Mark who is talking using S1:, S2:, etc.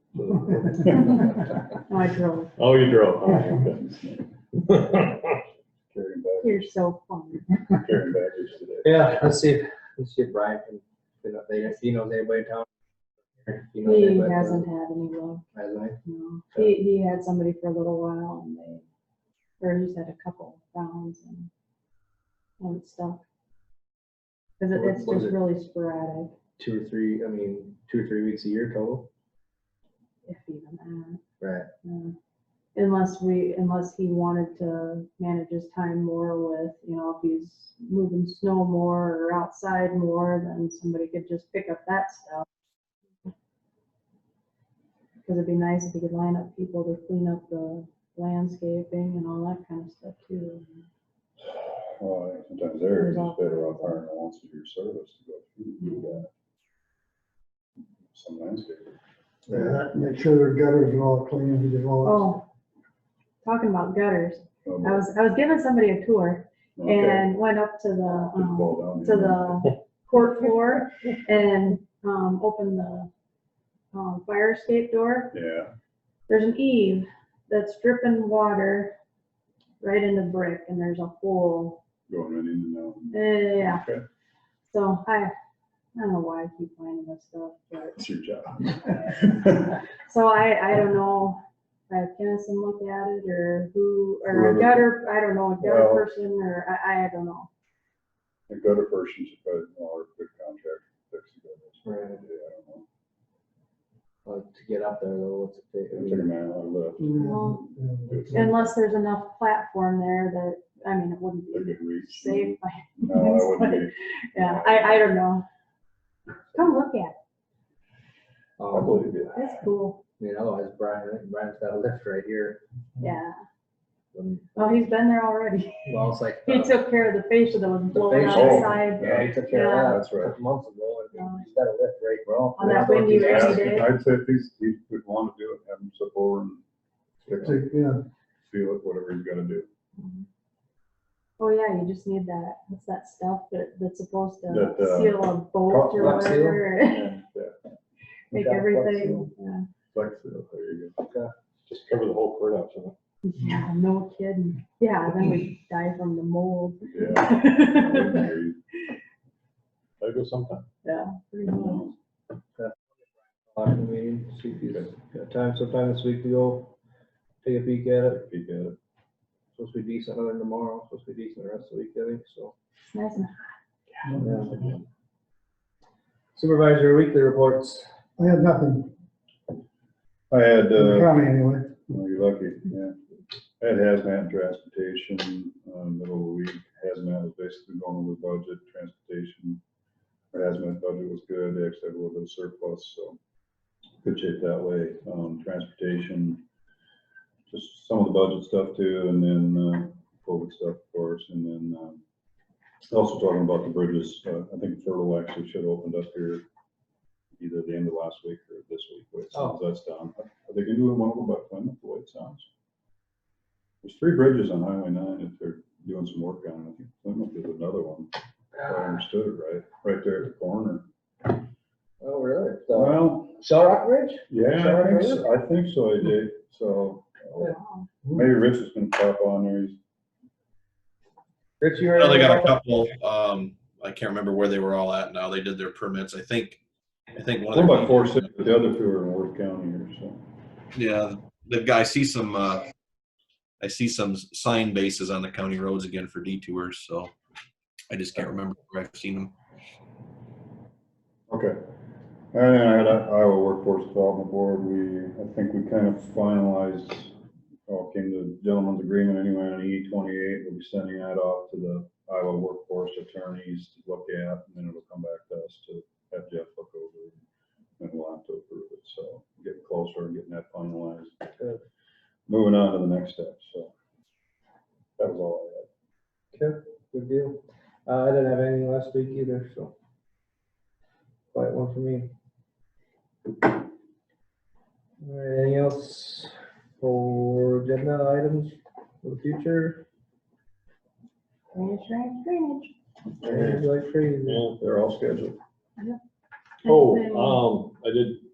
S1: I drove.
S2: Oh, you drove. Oh, okay.
S3: Carrying bag,
S1: You're so funny.
S3: carrying baggage today.
S4: Yeah, let's see, if- let's see if Brian can, you know, they, if he knows anybody in town. If He knows
S1: He
S4: anybody.
S1: hasn't had any luck,
S4: Hasn't he?
S1: no. He, he had somebody for a little while and they, or he's had a couple rounds and, and stuff. Cause it- it's
S4: Was
S1: just
S4: it-
S1: really sporadic,
S4: Two or three, I mean, two or three weeks a year total.
S1: if even that.
S4: Right.
S1: yeah. uh, Unless we, unless he wanted to manage his time more with, you know, if he's moving snow more or outside more, then somebody could just pick up that stuff. Cause it'd be nice if he could line up people to clean up the landscaping and all that kind of stuff too.
S3: Well, I think sometimes they're just better off hiring a once a year service to go through
S1: Mm-hmm.
S3: and do that. Some landscaper.
S5: Yeah, Make sure their gutters are all clean, because all,
S1: Oh, talking about gutters,
S3: Oh,
S1: I was, I was giving somebody a tour
S3: okay.
S1: and went up to the,
S3: Just
S1: um,
S3: fall down
S1: to
S3: here.
S1: the court floor and um, open the um, fire escape door.
S3: Yeah,
S1: There's an eave that's dripping water right into brick, and there's a hole.
S3: going right in and out.
S1: Eh, Yeah.
S3: Okay.
S1: So I, I don't know why I keep finding this stuff, but
S3: It's your job.
S1: so I, I don't know. if I have Kennison look at it, or who, or
S3: Whoever.
S1: a gutter, I don't know, a gutter
S3: Well-
S1: person, or I, I don't know.
S3: The gutter person should probably, or good contractor fix the gutters.
S4: Right.
S3: Yeah, I don't know.
S4: Well, to get up there though, what's it take? I
S3: It'll take a
S4: mean,
S3: man out left.
S1: Well-
S5: yeah.
S1: Unless there's enough platform there that, I mean, it wouldn't
S3: They
S1: be
S3: could reach.
S1: safe by
S3: No, I wouldn't be.
S1: Yeah, I, I don't know. Come look at it.
S3: I
S4: um,
S3: believe you.
S1: It's cool.
S4: I mean, otherwise Brian, I think Brian's got a lift right here.
S1: Yeah.
S4: When,
S1: Oh, he's been there already.
S4: well, it's like.
S1: He took care of the fascia that was blowing
S4: fascia.
S1: out the
S3: Oh.
S1: side
S4: Yeah, he took care of that.
S3: That's right.
S4: couple Months ago, and he's got a lift right, well.
S1: Um, On that windy
S3: Yeah,
S1: rainy day.
S3: I'd say if he's, he would want to do it, have him slip over and fix it,
S5: Take- Yeah,
S3: seal it, whatever he's gotta do.
S1: Oh, yeah, you just need that, what's that stuff that, that's supposed to
S3: That, uh,
S1: seal a bolt
S3: caulk-
S1: or
S4: rock seal?
S1: whatever,
S3: And, uh,
S1: make
S4: Yeah, caulk
S1: everything.
S3: Flex seal, there you go.
S2: Just cover the whole courthouse in it.
S1: yeah. Yeah, no kidding. Yeah, then we die from the mold.
S3: Yeah.
S1: Yeah,
S2: There goes something.
S1: pretty much.
S4: Lock the meeting, see if he's got time sometime this week to go take a peek at it.
S3: He did it.
S4: Supposed to be decent other than tomorrow, supposed to be decent the rest of the week, I think, so.
S1: It's nice and
S4: Yeah. Supervisor weekly reports.
S5: I had nothing,
S3: I had,
S5: in the
S3: uh,
S5: county anyway.
S3: well, you're lucky, yeah. I had hazmat and transportation, uh, middle of the week, hazmat was basically going over budget, transportation. Our hazmat budget was good, they actually had a little bit of surplus, so good shape that way, um, transportation. Just some of the budget stuff too, and then, uh, COVID stuff, of course, and then, um, also talking about the bridges, uh, I think Fertile actually should have opened up here either the end of last week or this week, but it sounds that's down. Are they gonna do one over by Plymouth, the way it sounds? There's three bridges on Highway nine if they're doing some work on it. I think Plymouth is another one, if I understood it right, right there at the corner.
S4: Oh, really? So,
S3: Well,
S4: Shell Rock Ridge?
S3: yeah, I think so, I think so, I did, so. uh,
S1: wow.
S3: Maybe Rich is gonna pop on there, he's
S4: Rich, you
S6: Well,
S4: were.
S6: they got a couple, um, I can't remember where they were all at now. They did their permits. I think, I think one
S3: What
S6: of
S3: about
S6: the,
S3: four six, the other two are in Worth County or so.
S6: yeah, the guy, I see some, uh, I see some sign bases on the county roads again for detours, so I just can't remember where I've seen them.
S3: Okay. And then I had a Iowa Workforce Development Board, we, I think we kind of finalized, or came to gentleman's agreement anyway on E twenty-eight, we'll be sending that off to the Iowa Workforce Attorneys to look at, and then it'll come back to us to have Jeff look over. And we'll have to approve it, so getting closer, getting that finalized.
S4: Good.
S3: Moving on to the next step, so. That was all I had.
S4: Okay, good deal. Uh, I didn't have anything last week either, so. Quiet one for me. All right, anything else for agenda items for the future?
S1: Drainage, drainage, drainage.
S4: Like crazy.
S2: Yeah.
S3: They're all scheduled.
S1: Anything-
S3: uh,
S2: Oh, um, I did